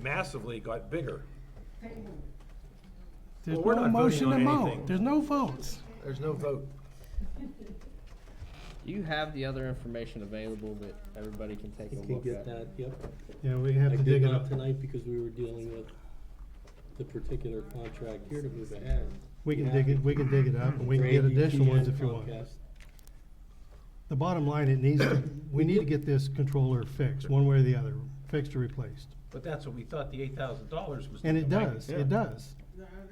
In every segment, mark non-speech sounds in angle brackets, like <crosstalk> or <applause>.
massively got bigger. There's Well, we're no not voting motion to on vote. anything. There's no votes. There's no vote. Do you have the other information available that everybody can take a You can look get at? that, yep. Yeah, we I have to did dig it not up. tonight because we were dealing with the particular contract here to move ahead. We can dig it, we can dig it up and we can get Grade additional DT ones and if you want. Comcast. The bottom line, it needs, to. we need to get this controller fixed, one way or the other, fixed or replaced. But that's what we thought the eight thousand dollars was. And it gonna make does, it does.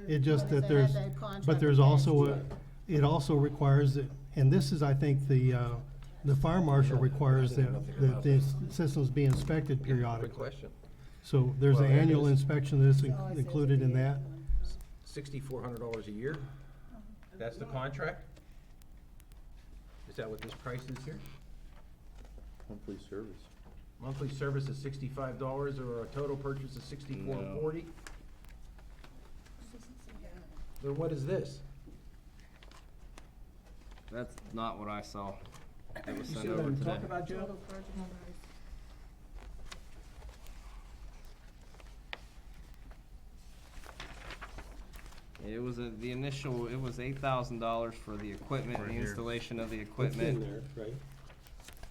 It just that Because they had there's, that contract but there's attached also, to a- it also requires, that- and this is, I think, the, uh, the fire marshal requires that, that the systems be inspected Quick periodically. question. So there's an Well, it annual is. inspection that's in- Oh, it says included in the that. one. Sixty-four hundred dollars a year? That's the contract? Is that what this price is here? monthly service. Monthly service is sixty-five dollars or a total purchase is sixty-four forty? Then what is this? That's not what I saw. It was You sent see what over I'm today. talking about, Joe? Total purchase price. It was a, the initial, it was eight thousand dollars for the equipment, the installation of the It's in equipment. there, right?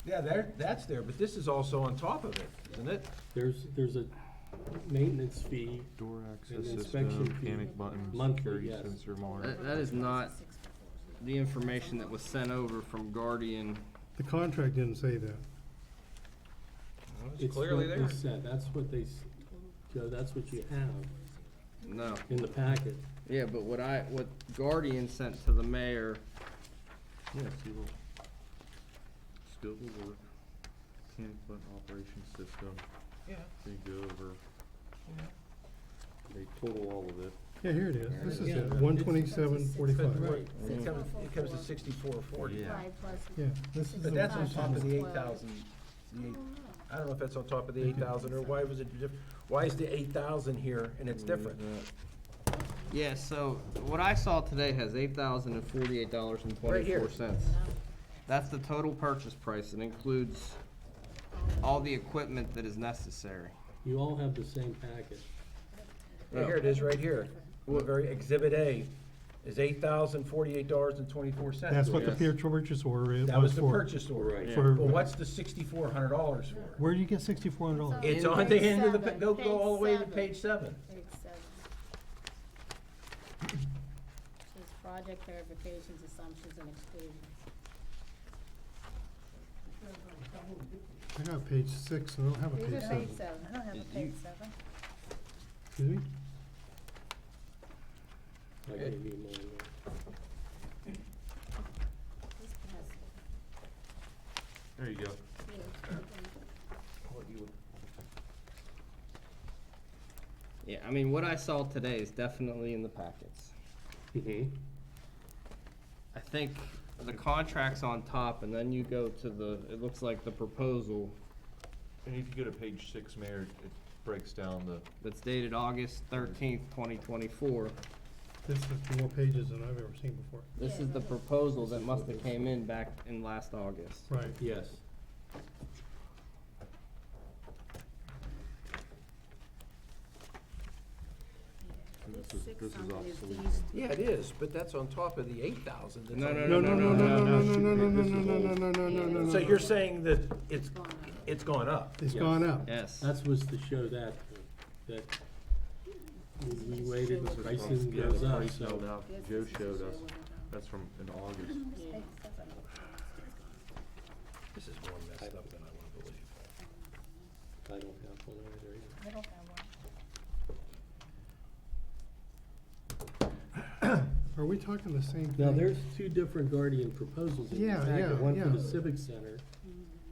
Yeah, there, that's there, but this is also on top of it, isn't it? There's, there's a maintenance fee, Door access An system, inspection fee. panic buttons, Monthly, security yes. sensor monitor. That, that is not the information that was sent over from Guardian. The contract didn't say that. it's It's what clearly they there. said, that's what they, s- Joe, that's what you have No. in the packet. Yeah, but what I, what Guardian sent to the mayor Yes, you will. Skillful work, panic button operation system, Yeah, they go over, yeah. they total all of it. Yeah, here it is. This is Yeah. it, one twenty-seven forty-five. Right, it comes, it comes to sixty-four forty. Yeah. Five plus. Yeah, this is. But the- that's on top of the eight Well- thousand, the eight, I don't know if that's on top of the eight thousand, or why was it diff, why is the eight thousand here and it's different? Yeah, so what I saw today has eight thousand and forty-eight dollars and Right here. twenty-four cents. That's the total purchase price, it includes all the equipment that is necessary. You all have the same packet. Yeah, Here it is, right here, the very exhibit A is eight thousand forty-eight dollars and twenty-four cents. That's what the Yes. peer purchase order is. That was the for. purchase order. Right. For- Well, what's the sixty-four hundred dollars for? Where do you get sixty-four hundred dollars? It's on the end of the, pa- go, Page go all the way to seven. page seven. Page seven. Says project clarifications, assumptions, and exclusions. I got page six, and I don't have a These page are page seven. seven, I don't have a page seven. Excuse me? I gave you mine. This has- There you go. Yeah, I mean, what I saw today is definitely in the packets. Mm-hmm. I think the contract's on top, and then you go to the, it looks like the proposal And if you go to page six, Mayor, it breaks down the that's dated August thirteenth, twenty twenty-four. This is more pages than I've ever seen before. This is the proposal that must have came in back in last August. Right. Yes. This This is- six this is something is obsolete. these Yeah, it is, but that's on top of the eight thousand. No, No, no, no, no, no, no, no, no, no, This is no, no, old. no, no, no, no, no. So you're saying that it's, gone up. it's gone up? It's Yes. gone up. Yes. That was to show that, that we- we waited, the pricing Yeah, the goes up, price so. went up. This Joe is to showed show us, what it that's from in August. <laughs> is. Page seven. This is more messed up than I wanna believe. I don't have one either. either. I don't have one. Are we talking the same thing? Now, there's two different Guardian proposals in Yeah, this packet, yeah, one for the yeah. Civic Center,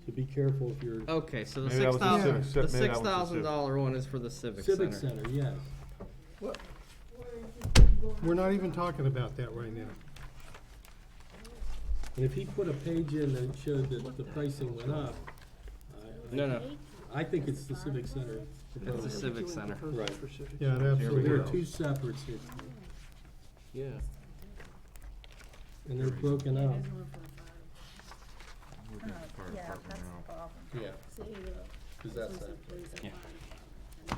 so be careful if you're, Okay, so the Maybe that six was the thousand, civic the cen- maybe that six was the thousand civic. dollar one is for the civic center. Civic Center, yes. We're not even talking about that right now. And if he put a page in that showed that the pricing went up, I- No, no, I, I think it's the Civic Center. it's the proposal. civic center. Right, Yeah, it so absolutely there are is. two separates here, Yeah. and they're broken up, There's one for the fire. We're doing fire department now. problem. yeah, See, uh, cause this that's one's the that. police and Yeah. fire.